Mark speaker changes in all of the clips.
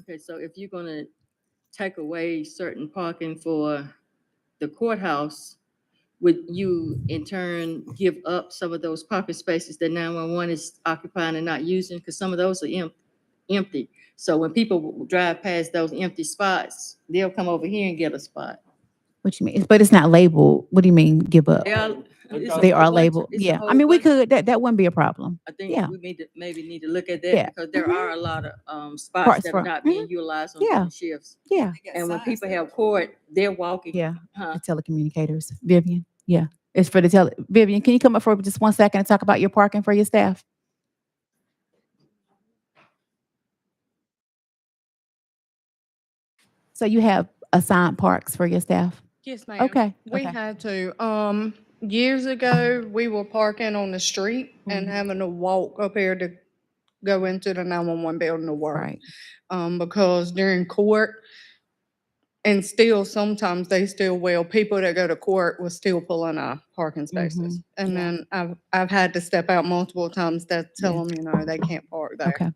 Speaker 1: Okay, so if you're gonna take away certain parking for the courthouse, would you in turn give up some of those parking spaces that nine-one-one is occupying and not using? Because some of those are em- empty. So when people w- drive past those empty spots, they'll come over here and get a spot.
Speaker 2: What you mean? But it's not labeled. What do you mean give up?
Speaker 1: They are, it's a
Speaker 2: They are
Speaker 1: whole bunch-
Speaker 2: labeled.
Speaker 1: it's a
Speaker 2: Yeah. I
Speaker 1: whole
Speaker 2: mean, we
Speaker 1: bunch of-
Speaker 2: could, that, that wouldn't be a problem.
Speaker 1: I think
Speaker 2: yeah.
Speaker 1: we need to, maybe need to look at
Speaker 2: Yeah.
Speaker 1: that because there
Speaker 2: Mhm.
Speaker 1: are a lot of, um,
Speaker 2: Parts
Speaker 1: spots that
Speaker 2: for- mm-hmm.
Speaker 1: are not being utilized on
Speaker 2: Yeah.
Speaker 1: certain shifts.
Speaker 2: Yeah.
Speaker 1: And when people have court, they're walking.
Speaker 2: Yeah.
Speaker 1: huh?
Speaker 2: The telecommunicators. Vivian. Yeah. It's for the tele, Vivian, can you come up for just one second and talk about your parking for your staff? So you have assigned parks for your staff?
Speaker 3: Yes, ma'am.
Speaker 2: Okay.
Speaker 3: We
Speaker 2: okay.
Speaker 3: had to, um, years ago, we were parking on the street and
Speaker 2: Mhm.
Speaker 3: having to walk up here to go into the nine-one-one building to work.
Speaker 2: Right.
Speaker 3: Um, because during court, and still sometimes they still will, people that go to court will still pull in our parking spaces. And
Speaker 2: Mm-hmm. yeah.
Speaker 3: then I've, I've had to step out multiple times to
Speaker 2: Yeah.
Speaker 3: tell them, you know, they can't park there.
Speaker 2: Okay.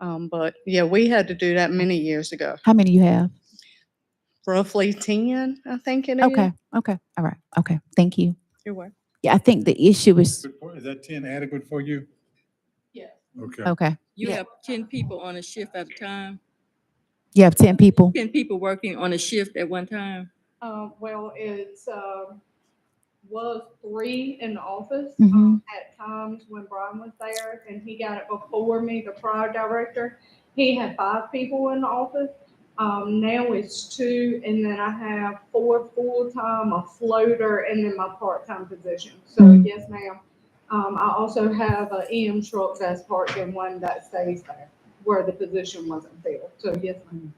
Speaker 3: Um, but yeah, we had to do that many years ago,
Speaker 2: How many you have?
Speaker 3: roughly ten, I think it is.
Speaker 2: Okay. Okay. All right. Okay. Thank you.
Speaker 3: You're welcome.
Speaker 2: Yeah. I think the issue is,
Speaker 4: Good for- Is that ten adequate for you?
Speaker 3: Yeah.
Speaker 4: Okay.
Speaker 2: okay.
Speaker 1: You
Speaker 2: Yeah.
Speaker 1: have ten people on a shift at a time,
Speaker 2: You have 10 people?
Speaker 1: ten people working on a shift at one time.
Speaker 5: Um, well, it's, um, was three in the office,
Speaker 2: Mhm.
Speaker 5: um, at times when Brian was there and he got it before me, the prior director. He had five people in the office. Um, now it's two and then I have four full-time, a floater, and then my part-time position. So
Speaker 2: Mhm.
Speaker 5: yes, ma'am. Um, I also have a EM truck that's parked and one that stays there where the position wasn't filled. So yes, ma'am.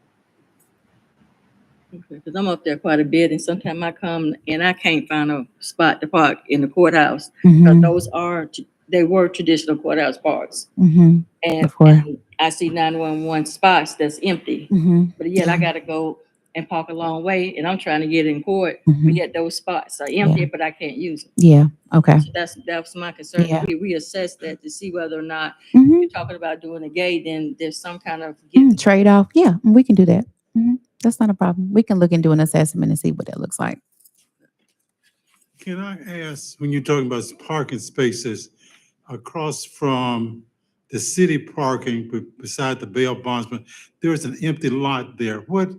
Speaker 1: Because I'm up there quite a bit and sometimes I come and I can't find a spot to park in the courthouse. 'cause
Speaker 2: Mhm,
Speaker 1: those are, t- they were traditional courthouse parks.
Speaker 2: mhm,
Speaker 1: And
Speaker 2: Of course.
Speaker 1: and I see nine-one-one spots that's empty,
Speaker 2: mhm,
Speaker 1: but yet I
Speaker 2: Yeah.
Speaker 1: gotta go and park a long way and I'm trying to get in court, but
Speaker 2: mhm.
Speaker 1: yet those spots are empty, but I can't use them.
Speaker 2: Yeah. Okay.
Speaker 1: So That's, that's my concern.
Speaker 2: Yeah.
Speaker 1: We reassess that to see whether or not
Speaker 2: Mhm.
Speaker 1: you're talking about doing a gay, then there's some kind of give
Speaker 2: Mm, trade off. Yeah, mm, we can do that. Mhm. That's not a problem. We can look and do an assessment and see what that looks like.
Speaker 4: Can I ask, when you're talking about parking spaces across from the city parking be- beside the bail bondsman, there is an empty lot there. What,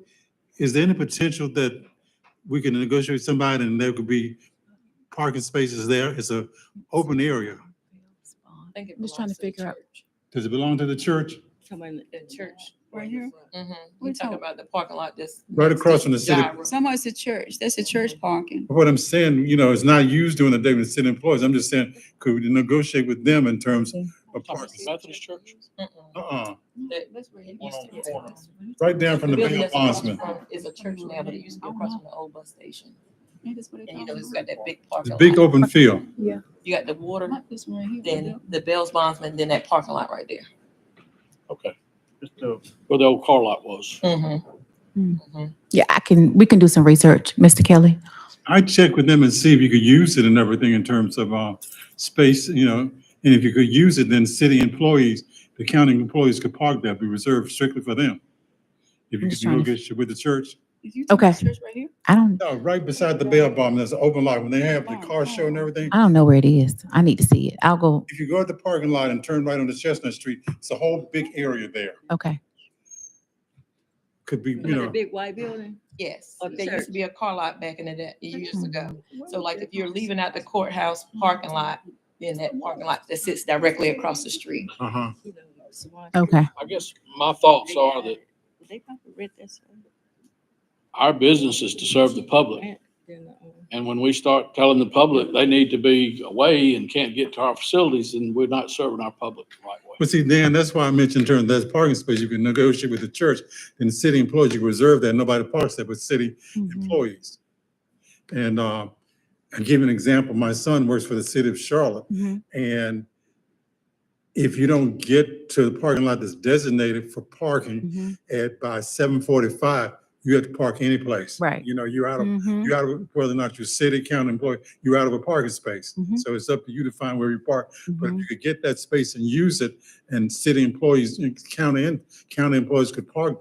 Speaker 4: is there any potential that we can negotiate with somebody and there could be parking spaces there? It's a open area.
Speaker 6: think it
Speaker 2: Just trying
Speaker 6: belongs
Speaker 2: to figure
Speaker 6: the
Speaker 2: out-
Speaker 6: church.
Speaker 4: Does it belong to the church?
Speaker 1: someone
Speaker 6: The church.
Speaker 7: Right here?
Speaker 6: Mm-hmm.
Speaker 7: We
Speaker 6: We're talking
Speaker 7: talk-
Speaker 6: about the parking lot that's.
Speaker 4: Right across from the city.
Speaker 7: Somewhere's a church. That's a church parking.
Speaker 4: What I'm saying, you know, it's not used during the day with city employees. I'm just saying, could we negotiate with them in terms of parking?
Speaker 8: Methodist Church?
Speaker 4: Uh-uh,
Speaker 6: That's where it
Speaker 8: One
Speaker 6: used
Speaker 8: on
Speaker 6: to be.
Speaker 8: the corner.
Speaker 4: right down from the
Speaker 6: building
Speaker 4: bail
Speaker 6: that's across
Speaker 4: bondsman.
Speaker 6: from- Is a church now, but it used to be across from the old bus station.
Speaker 7: Maybe that's what they
Speaker 6: And you know,
Speaker 7: call
Speaker 6: it's
Speaker 7: it.
Speaker 6: got that big
Speaker 4: It's a
Speaker 6: parking
Speaker 4: big
Speaker 6: lot.
Speaker 4: open field.
Speaker 6: You got the water,
Speaker 7: Not this one here.
Speaker 6: then the Bell's Bondsman, then that parking lot right there.
Speaker 8: Okay. Just uh, Where the old car lot was.
Speaker 6: Mm-hmm.
Speaker 2: Yeah, I can, we can do some research, Mr. Kelly.
Speaker 4: I check with them and see if you could use it and everything in terms of, uh, space, you know, and if you could use it, then city employees, the county employees could park there, be reserved strictly for them.
Speaker 2: I'm
Speaker 4: If you could
Speaker 2: just trying to-
Speaker 4: negotiate with the church.
Speaker 7: Did you talk about
Speaker 2: Okay.
Speaker 7: the Church right here?
Speaker 2: I don't,
Speaker 4: No, right beside the bail bondsman, there's an open lot. When they have the car show and everything,
Speaker 2: Oh, I don't know where it is. I need to see it. I'll go,
Speaker 4: if you go at the parking lot and turn right onto Chestnut Street, it's a whole big area there.
Speaker 2: okay.
Speaker 4: Could be, you
Speaker 1: a
Speaker 4: know.
Speaker 1: big white building.
Speaker 6: Yes,
Speaker 1: Or
Speaker 6: there used
Speaker 1: church.
Speaker 6: to be a car lot back in the day,
Speaker 2: Hmm.
Speaker 6: years ago. So like if you're leaving out the courthouse parking lot, then that parking lot that sits directly across the street.
Speaker 4: Uh-huh.
Speaker 2: Okay.
Speaker 8: I guess my
Speaker 4: Oh,
Speaker 8: thoughts are that
Speaker 1: They probably read this.
Speaker 8: our business is to serve the public. And when we start telling the public they need to be away and can't get to our facilities, then we're not serving our public the right way.
Speaker 4: But see, Dan, that's why I mentioned during that parking space, you can negotiate with the church and the city employees, you can reserve that, nobody parks there but city
Speaker 7: Mm-hmm,
Speaker 2: Mhm.
Speaker 4: employees. And, uh, I give you an example, my son works for the city of Charlotte,
Speaker 7: mm-hmm,
Speaker 2: Mhm.
Speaker 4: and if you don't get to the parking lot that's designated for parking
Speaker 7: mm-hmm,
Speaker 2: Mhm.
Speaker 4: at, by seven forty-five, you have to park any place.
Speaker 2: Right.
Speaker 4: You know, you're out of,
Speaker 2: Mhm.
Speaker 4: you're out of, whether or not you're city, county employee, you're out of a parking space.
Speaker 2: Mhm.
Speaker 4: So it's up to you to find where you park but
Speaker 7: mm-hmm.
Speaker 4: if
Speaker 2: Mhm.
Speaker 4: you could get that space and use it, and city employees, county, and county employees could park